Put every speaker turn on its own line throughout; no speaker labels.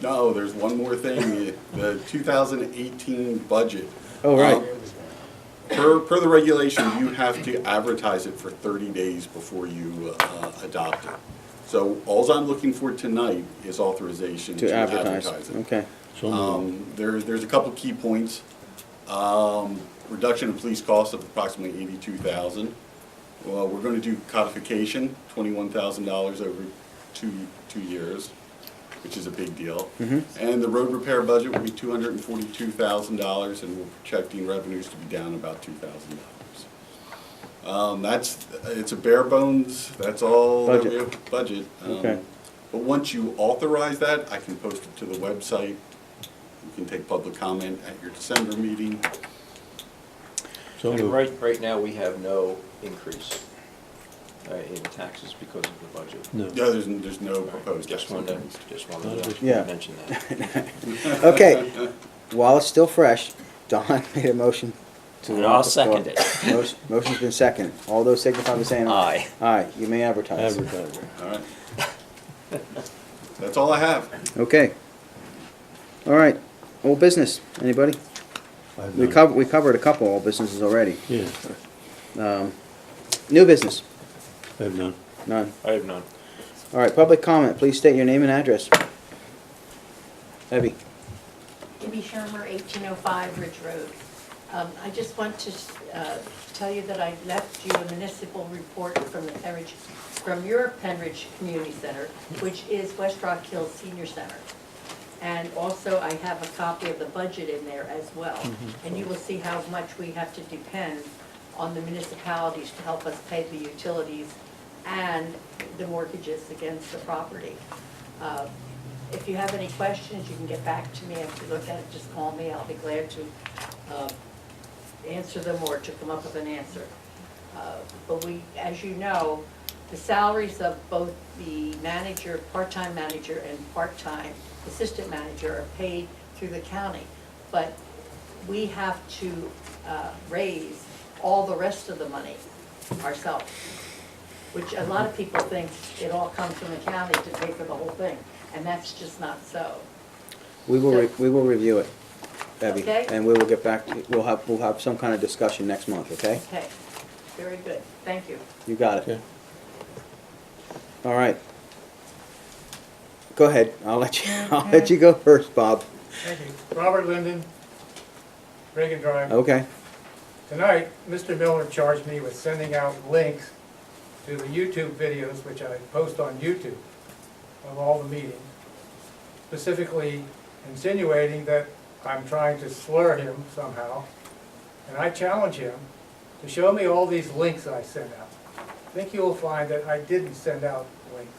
No, there's one more thing, the 2018 budget.
Oh, right.
Um, Per, per the regulation, you have to advertise it for 30 days before you uh, adopt it. So alls I'm looking for tonight is authorization
to advertise,
it.
okay.
Um, There, there's a couple key points. Um, Reduction in police costs of approximately eighty-two thousand. Well, we're gonna do codification, twenty-one thousand dollars over two, two years, which is a big deal. And the road repair budget will be two hundred and forty-two thousand dollars, and we're projecting revenues to be down about two thousand dollars. Um, that's, it's a bare bones, that's all that we
Budget.
have, budget. um,
Okay.
But once you authorize that, I can post it to the website. You can take public comment at your December meeting.
And right, right now, we have no increase uh, in taxes because of the budget.
No.
Yeah, there's, there's no proposed.
Just
action.
wanted, to- just wanted to
Yeah.
mention that.
Okay, while it's still fresh, Don made a motion to.
And I'll second it.
it. Motion's been seconded. All those signify by saying aye. Aye. Aye, you may advertise.
Advertising.
All right. That's all I have.
Okay. All right, old business, anybody? We covered, we covered a couple old businesses already.
Yeah,
Um, New business,
I have none.
none.
I have none.
All right, public comment, please state your name and address. Abby,
Debbie Shermer, 1805 Ridge Road. Um, I just want to uh, tell you that I left you a municipal report from the Penridge, from your Penridge Community Center, which is West Rock Hills Senior Center. And also, I have a copy of the budget in there as well. And you will see how much we have to depend on the municipalities to help us pay the utilities and the mortgages against the property. Uh, If you have any questions, you can get back to me. If you look at it, just call me. I'll be glad to uh, answer them or to come up with an answer. Uh, But we, as you know, the salaries of both the manager, part-time manager and part-time assistant manager are paid through the county. But we have to uh, raise all the rest of the money ourselves, which a lot of people think it all comes from the county to pay for the whole thing, and that's just not so.
we will, re- we will review it, Abby.
Okay.
And we will get back, to we'll have, we'll have some kind of discussion next month, okay?
Okay, very good, thank you.
You got
Okay.
it. All right. Go ahead, I'll let you, I'll let you go first, Bob.
Thank you. Robert Linden, Reagan Drive.
Okay,
Tonight, Mr. Miller charged me with sending out links to the YouTube videos, which I post on YouTube, of all the meetings, specifically insinuating that I'm trying to slur him somehow. And I challenge him to show me all these links I sent out. I think you will find that I didn't send out links.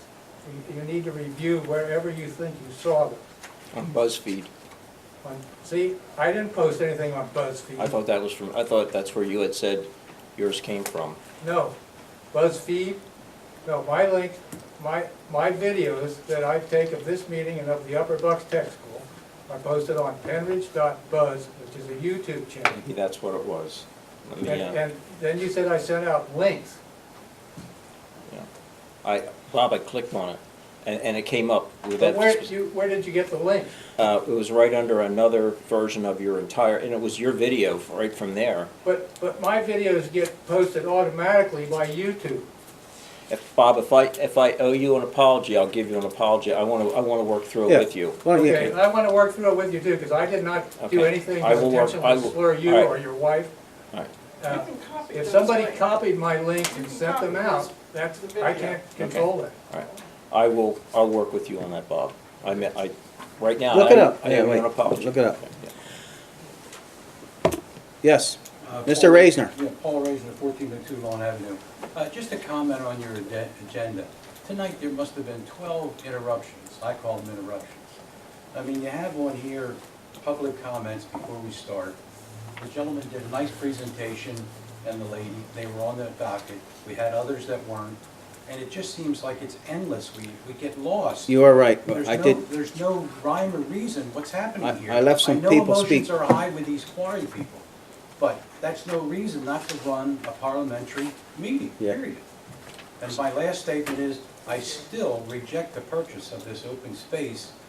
You- You need to review wherever you think you saw them.
On BuzzFeed,
On- See, I didn't post anything on BuzzFeed.
I thought that was from, I thought that's where you had said yours came from.
No, BuzzFeed, no, my link, my, my videos that I take of this meeting and of the Upper Bucks Tech School are posted on penridge.buzz, which is a YouTube channel.
Maybe that's what it was. Let
And,
me, uh,
and then you said I sent out links.
yeah. I, Bob, I clicked on it, and, and it came up with
But
that.
where,
spec-
you, where did you get the link?
Uh, it was right under another version of your entire, and it was your video right from there.
But, but my videos get posted automatically by YouTube.
If, Bob, if I, if I owe you an apology, I'll give you an apology. I want to, I want to work through
Yeah.
it with you.
well,
Okay,
yeah,
I want to work through it with you too, because I did not do
Okay.
anything
I
to
will work- I
intentionally
will-
slur you
all right.
or your wife.
All right.
Uh,
You can copy
If
those
somebody
links.
copied my link
You
and
can
sent them
copy
out,
those-
that's,
the
I
video.
can't control that.
All right, I will, I'll work with you on that, Bob. I mean, I, right now,
Look it
I-
up.
I
Yeah,
owe you
wait.
an apology.
Look it up.
Yeah.
yes,
Uh,
Mr.
Paul-
Raisner.
Yeah, Paul Raisner, 1402 Long Avenue. Uh, Just a comment on your agen- agenda. Tonight, there must have been 12 interruptions. I call them interruptions. I mean, you have on here public comments before we start. The gentleman did a nice presentation, and the lady, they were on the docket. We had others that weren't, and it just seems like it's endless. We we get lost.
You are right,
There's
I
no-
did,
There's no rhyme or reason what's
I-
happening here.
I left some people speak.
know emotions are high with these quarry people, but that's no reason not to run a parliamentary meeting,
Yeah.
period. And my last statement is, I still reject the purchase of this open space